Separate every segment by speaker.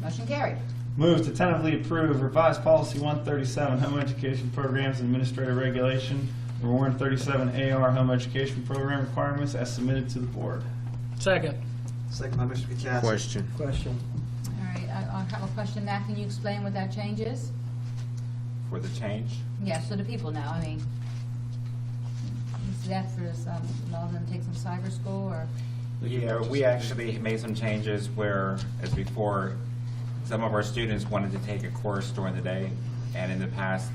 Speaker 1: Motion carried.
Speaker 2: Move to tentatively approve revised policy 137, home education programs and administrative regulation, number 137 AR, home education program requirements as submitted to the board.
Speaker 3: Second.
Speaker 4: Second by Mr. Kachasik.
Speaker 5: Question.
Speaker 3: Question.
Speaker 1: All right, I I have a question. Matt, can you explain what that change is?
Speaker 6: for the change.
Speaker 1: Yeah, so the people now, I mean, is that for some, all of them take some cyber school or?
Speaker 6: Yeah, we actually made some changes where, as before, some of our students wanted to take a course during the day, and in the past,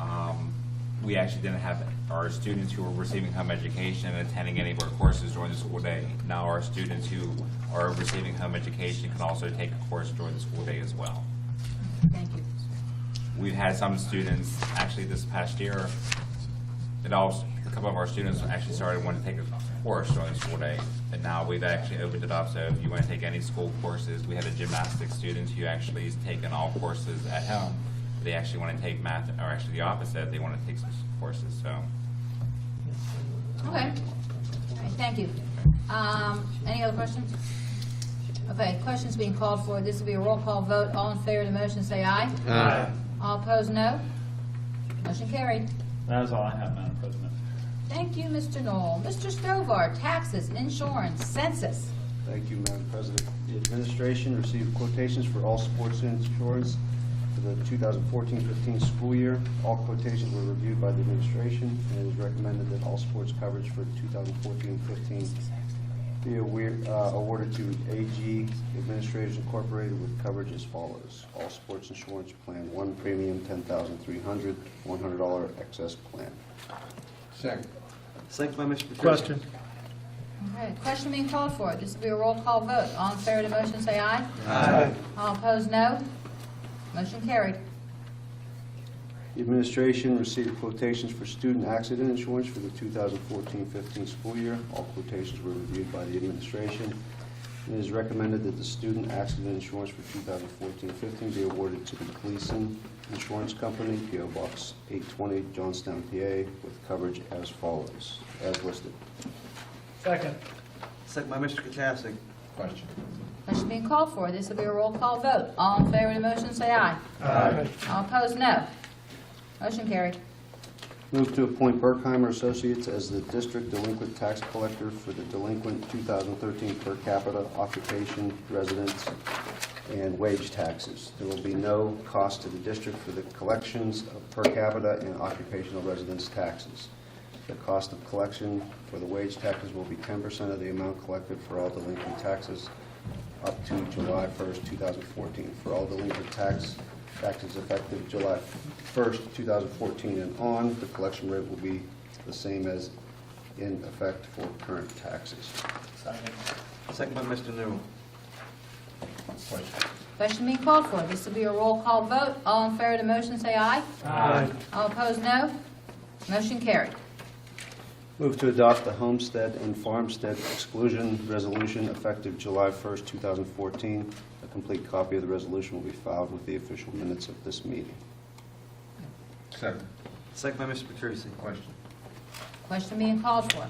Speaker 6: um, we actually didn't have our students who were receiving home education and attending any of our courses during the school day. Now our students who are receiving home education can also take a course during the school day as well.
Speaker 1: Thank you.
Speaker 6: We've had some students, actually this past year, it all, a couple of our students actually started wanting to take a course during the school day, but now we've actually opened it up, so if you want to take any school courses, we had a gymnastics student who actually is taking all courses at home. They actually want to take math, or actually the opposite, they want to take some courses, so.
Speaker 1: Okay. All right, thank you. Um, Any other questions? Okay, questions being called for. This will be a roll call vote. All in favor of the motion, say aye.
Speaker 5: Aye.
Speaker 1: All opposed, no. Motion carried.
Speaker 2: That is all I have, Madam President.
Speaker 1: Thank you, Mr. Knoll. Mr. Stovall, taxes, insurance, census.
Speaker 7: Thank you, Madam President. The administration received quotations for all sports insurance for the 2014-15 school year. All quotations were reviewed by the administration, and it is recommended that all sports coverage for 2014-15 be aware- uh, awarded to AG Administrators Incorporated with coverage as follows. All sports insurance plan, one premium, $10,300, $100 excess plan.
Speaker 4: Second by Mr. Kachasik.
Speaker 3: Question.
Speaker 1: Okay, question being called for. This will be a roll call vote. All in favor of the motion, say aye. Aye. All opposed, no. Motion carried.
Speaker 7: The administration received quotations for student accident insurance for the 2014-15 school year. All quotations were reviewed by the administration. It is recommended that the student accident insurance for 2014-15 be awarded to the Gleason Insurance Company, PO Box 820, Johnstown, PA, with coverage as follows, as listed.
Speaker 3: Second.
Speaker 4: Second by Mr. Kachasik.
Speaker 1: Question being called for. This will be a roll call vote. All in favor of the motion, say aye.
Speaker 3: Aye.
Speaker 1: All opposed, no. Motion carried.
Speaker 7: Move to appoint Berkheimer Associates as the district delinquent tax collector for the delinquent 2013 per capita occupation, residence, and wage taxes. There will be no cost to the district for the collections of per capita and occupational residence taxes. The cost of collection for the wage taxes will be 10% of the amount collected for all delinquent taxes up to July 1st, 2014. For all delinquent tax, taxes effective July 1st, 2014 and on, the collection rate will be the same as in effect for current taxes.
Speaker 4: Second by Mr. Newell.
Speaker 1: Question being called for. This will be a roll call vote. All in favor of the motion, say aye.
Speaker 3: Aye.
Speaker 1: All opposed, no. Motion carried.
Speaker 7: Move to adopt the homestead and farmstead exclusion resolution effective July 1st, 2014. A complete copy of the resolution will be filed with the official minutes of this meeting.
Speaker 5: Second.
Speaker 4: Second by Mr. Petrusi.
Speaker 5: Question.
Speaker 1: Question being called for.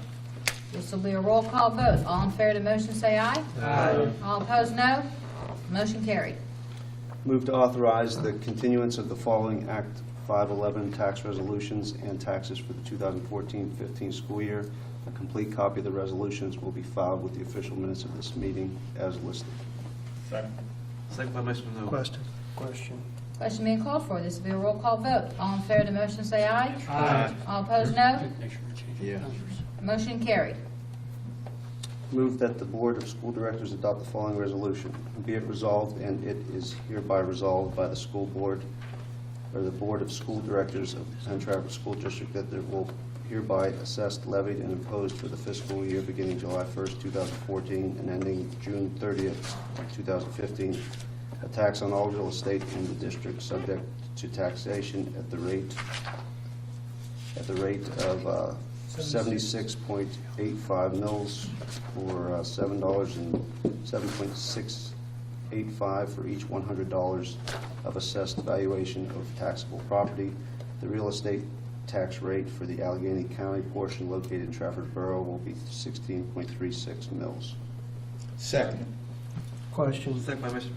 Speaker 1: This will be a roll call vote. All in favor of the motion, say aye.
Speaker 3: Aye.
Speaker 1: All opposed, no. Motion carried.
Speaker 7: Move to authorize the continuance of the following Act 511 tax resolutions and taxes for the 2014-15 school year. A complete copy of the resolutions will be filed with the official minutes of this meeting as listed.
Speaker 2: Second.
Speaker 4: Second by Mr. Newell.
Speaker 3: Question. Question.
Speaker 1: Question being called for. This will be a roll call vote. All in favor of the motion, say aye.
Speaker 3: Aye.
Speaker 1: All opposed, no.
Speaker 5: Yeah.
Speaker 1: Motion carried.
Speaker 7: Move that the Board of School Directors adopt the following resolution. Be it resolved, and it is hereby resolved by the school board, or the Board of School Directors of the Penn Trafford School District, that there will hereby assessed, levied, and imposed for the fiscal year beginning July 1st, 2014, and ending June 30th, 2015, a tax on all real estate in the district subject to taxation at the rate at the rate of uh, 76.85 mils or uh, $7 and 7.685 for each $100 of assessed valuation of taxable property. The real estate tax rate for the Allegheny County portion located in Trafford Borough will be 16.36 mils.
Speaker 5: Second.
Speaker 3: Question.
Speaker 4: Second by Mr.